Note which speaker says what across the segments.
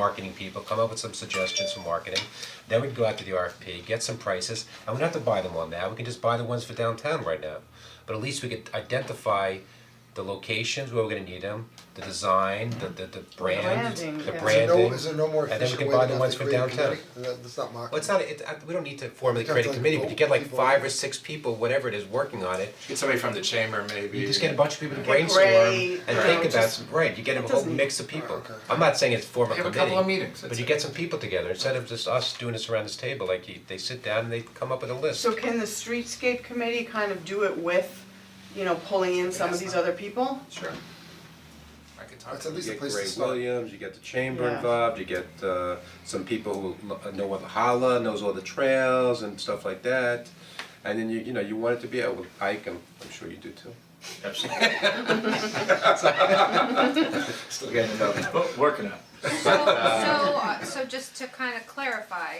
Speaker 1: marketing people, come up with some suggestions for marketing. Then we'd go out to the RFP, get some prices, and we don't have to buy them all now, we can just buy the ones for downtown right now. But at least we could identify the locations where we're gonna need them, the design, the the the brand,
Speaker 2: branding,
Speaker 1: the
Speaker 2: yeah.
Speaker 1: branding.
Speaker 3: No, is there no more
Speaker 1: and then we
Speaker 3: efficient
Speaker 1: can
Speaker 3: way
Speaker 1: buy
Speaker 3: than
Speaker 1: the
Speaker 3: have
Speaker 1: ones
Speaker 3: to
Speaker 1: for
Speaker 3: create a
Speaker 1: downtown.
Speaker 3: committee? That- That's not
Speaker 1: Well, it's
Speaker 3: marketing.
Speaker 1: not, it, I- we don't need to formally
Speaker 3: Just
Speaker 1: create a
Speaker 3: like
Speaker 1: committee, but you
Speaker 3: vote
Speaker 1: get like
Speaker 3: people
Speaker 1: five
Speaker 3: in.
Speaker 1: or six people, whatever it is, working on it.
Speaker 4: Get somebody from the chamber maybe.
Speaker 1: You just get a bunch of people to
Speaker 2: Get
Speaker 1: brainstorm
Speaker 2: Ray,
Speaker 1: and
Speaker 2: you
Speaker 1: think
Speaker 2: know,
Speaker 1: about,
Speaker 2: just-
Speaker 1: right, you get a whole
Speaker 2: doesn't-
Speaker 1: mix of people.
Speaker 3: okay.
Speaker 1: I'm not saying it's form a
Speaker 4: Have
Speaker 1: committee.
Speaker 4: a couple of meetings,
Speaker 1: But
Speaker 4: that's
Speaker 1: you
Speaker 4: it.
Speaker 1: get some people together, instead of just us doing this around this table, like you, they sit down and they come up with a list.
Speaker 2: So can the streetscape committee kind of do it with, you know, pulling in some of these other people?
Speaker 4: Sure. I could talk
Speaker 3: That's
Speaker 4: to
Speaker 3: at least
Speaker 4: you.
Speaker 3: a place to
Speaker 1: Ray
Speaker 3: start.
Speaker 1: Williams, you get the chamber
Speaker 2: Yeah.
Speaker 1: involved, you get uh some people who lo- know what the holla, knows all the trails and stuff like that. And then you, you know, you want it to be, out with Ike, I'm I'm sure you do too.
Speaker 4: Absolutely. Still getting it up. Working on it.
Speaker 5: So, so, uh, so just to kind of clarify,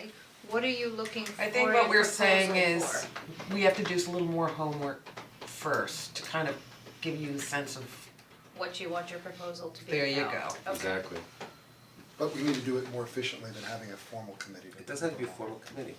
Speaker 5: what are you looking for
Speaker 6: I think
Speaker 5: in
Speaker 6: what we're
Speaker 5: proposal
Speaker 6: saying is,
Speaker 5: for?
Speaker 6: we have to do a little more homework first to kind of give you a sense of,
Speaker 5: What you want your proposal to be
Speaker 6: There you
Speaker 5: about.
Speaker 6: go.
Speaker 5: Okay.
Speaker 1: Exactly.
Speaker 3: But we need to do it more efficiently than having a formal committee.
Speaker 1: It doesn't have to be a formal committee.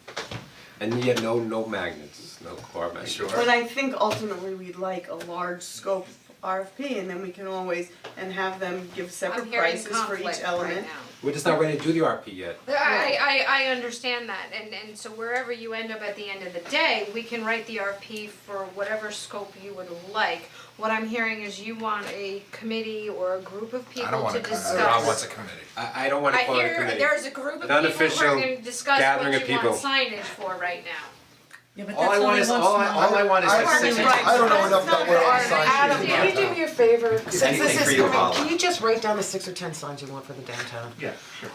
Speaker 1: And yet no, no magnets, no car magnets.
Speaker 4: Sure.
Speaker 2: But I think ultimately we'd like a large scope RFP and then we can always, and have them give
Speaker 5: I'm
Speaker 2: separate
Speaker 5: hearing
Speaker 2: prices for
Speaker 5: conflict
Speaker 2: each
Speaker 5: right now.
Speaker 2: element.
Speaker 1: We're just not ready to do the RP yet.
Speaker 5: I, I, I understand that, and, and so wherever you end up at the end of the day, we can write the RP for whatever scope you would like. What I'm hearing is you want a committee or a group of
Speaker 4: I don't
Speaker 5: people
Speaker 4: want
Speaker 5: to
Speaker 4: a committee.
Speaker 5: discuss.
Speaker 4: Rob wants a committee.
Speaker 1: I I don't wanna
Speaker 5: I
Speaker 1: call it a
Speaker 5: hear
Speaker 1: committee.
Speaker 5: there's a group of people who
Speaker 1: Non-official
Speaker 5: are gonna discuss
Speaker 1: gathering of
Speaker 5: what you
Speaker 1: people.
Speaker 5: want signage for right now.
Speaker 7: Yeah, but
Speaker 4: All I
Speaker 7: that's
Speaker 4: want
Speaker 7: only
Speaker 4: is,
Speaker 7: once a
Speaker 4: all I,
Speaker 7: month.
Speaker 4: all I want is
Speaker 3: I-
Speaker 4: like six.
Speaker 2: Right.
Speaker 3: I don't know enough
Speaker 2: That's
Speaker 3: about where all
Speaker 2: not
Speaker 3: the
Speaker 2: fair.
Speaker 3: signs
Speaker 6: Adam,
Speaker 3: should be.
Speaker 6: can you do me a favor, since
Speaker 4: anything
Speaker 6: this
Speaker 4: for
Speaker 6: is
Speaker 4: your
Speaker 6: coming,
Speaker 4: wallet.
Speaker 6: can you just write down the six or ten signs you want for the downtown?
Speaker 4: Yeah, sure.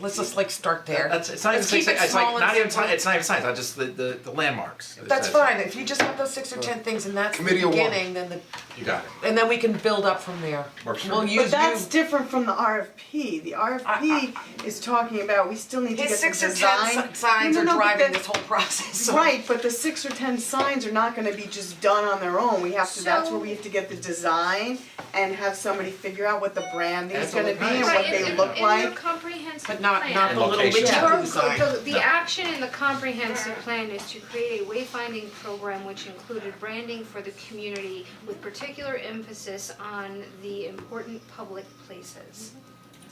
Speaker 6: Let's just like start there.
Speaker 4: That's, it's not even
Speaker 6: Let's keep
Speaker 4: six,
Speaker 6: it
Speaker 4: it's
Speaker 6: small
Speaker 4: like,
Speaker 6: and
Speaker 4: not even,
Speaker 6: simple.
Speaker 4: ti- it's not even signs, I just, the, the, the landmarks.
Speaker 6: That's fine, if you just have those six or ten things and that's the
Speaker 3: Committee of one.
Speaker 6: beginning, then the,
Speaker 4: You got it.
Speaker 6: and then we can build up from there.
Speaker 4: Works for
Speaker 6: We'll
Speaker 4: me.
Speaker 6: use
Speaker 2: But that's
Speaker 6: you-
Speaker 2: different from the RFP, the RFP is talking about, we still need to get
Speaker 6: His
Speaker 2: the design.
Speaker 6: six or ten si- signs
Speaker 2: No,
Speaker 6: are
Speaker 2: no, no, but
Speaker 6: driving
Speaker 2: that-
Speaker 6: this whole process, so-
Speaker 2: Right, but the six or ten signs are not gonna be just done on their own, we have to, that's where we have to get the design and have somebody figure out what the branding is gonna be and what
Speaker 5: Right,
Speaker 2: they
Speaker 5: in,
Speaker 2: look
Speaker 5: in, in your
Speaker 2: like.
Speaker 5: comprehensive
Speaker 6: But not, not
Speaker 5: plan.
Speaker 6: the little
Speaker 4: Location.
Speaker 6: widget
Speaker 2: Yeah.
Speaker 5: Your-
Speaker 6: design.
Speaker 5: the- the action in the comprehensive plan is to create a wayfinding program which included branding for the community with particular emphasis on the important public places.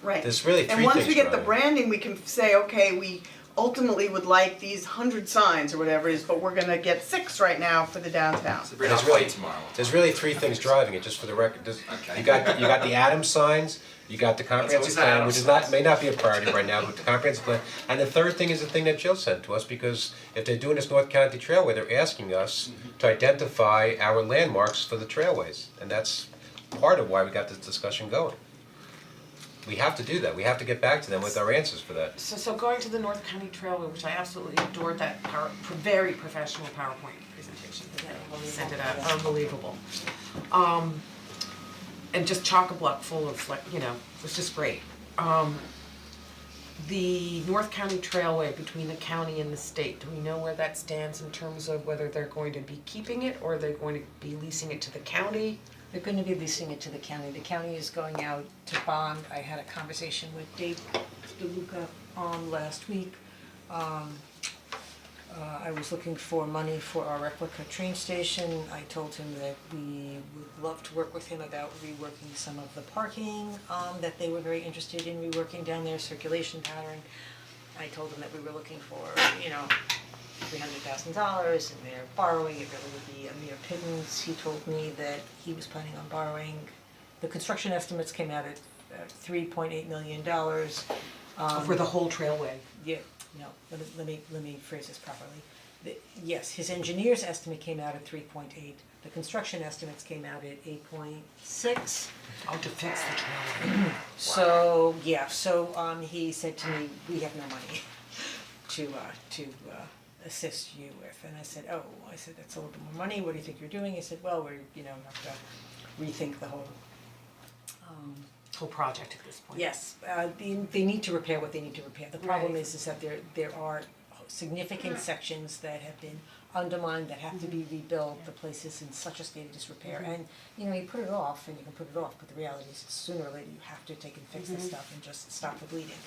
Speaker 2: Right.
Speaker 1: There's really
Speaker 2: And
Speaker 1: three
Speaker 2: once
Speaker 1: things,
Speaker 2: we get the
Speaker 1: Brian.
Speaker 2: branding, we can say, okay, we ultimately would like these hundred signs or whatever it is, but we're gonna get six right now for the downtown.
Speaker 4: Sabrina, I'll
Speaker 1: There's really-
Speaker 4: play tomorrow.
Speaker 1: There's really three things driving it, just for the record, There's-
Speaker 4: Okay.
Speaker 1: you got, the- you got the Adams signs, you got the comprehensive
Speaker 4: always the
Speaker 1: plan,
Speaker 4: Adams
Speaker 1: which is not,
Speaker 4: signs.
Speaker 1: may not be a priority right now, but the comprehensive plan. And the third thing is the thing that Jill sent to us, because if they're doing this North County Trailway, they're asking us to identify our landmarks for the trailways, and that's part of why we got this discussion going. We have to do that, we have to get back to them with our answers for that.
Speaker 6: So, so going to the North County Trailway, which I absolutely adored that power, pro- very professional PowerPoint presentation, sent it out, unbelievable. Um, and just chock-a-block full of like, you know, it was just great. Um, the North County Trailway between the county and the state, do we know where that stands in terms of whether they're going to be keeping it or they're going to be leasing it to the county?
Speaker 7: They're gonna be leasing it to the county, the county is going out to bond, I had a conversation with Dave DeLuca um last week. Um, uh, I was looking for money for our replica train station, I told him that we would love to work with him about reworking some of the parking, um, that they were very interested in reworking down there, circulation pattern. I told him that we were looking for, you know, three hundred thousand dollars and they're borrowing, it really would be a mere pittance. He told me that he was planning on borrowing, the construction estimates came out at uh, three point eight million dollars.
Speaker 6: For the whole trailway?
Speaker 7: Yeah, no, let me, let me, let me phrase this properly. The, yes, his engineer's estimate came out at three point eight, the construction estimates came out at eight point six.
Speaker 6: Oh, to fix the trailway.
Speaker 7: So, yeah, so um he said to me, we have no money to uh to uh assist you with, and I said, oh, I said, that's a little bit more money, what do you think you're doing? He said, well, we're, you know, have to rethink the whole um
Speaker 6: whole project at this point.
Speaker 7: Yes, uh they they need to repair what they need to repair. The problem
Speaker 6: Right.
Speaker 7: is is that there there are significant sections that have been undermined that have to be rebuilt, the place is in such a state of disrepair. And, you know, you put it off and you can put it off, but the reality is sooner or later you have to take and fix this stuff and just stop the bleeding.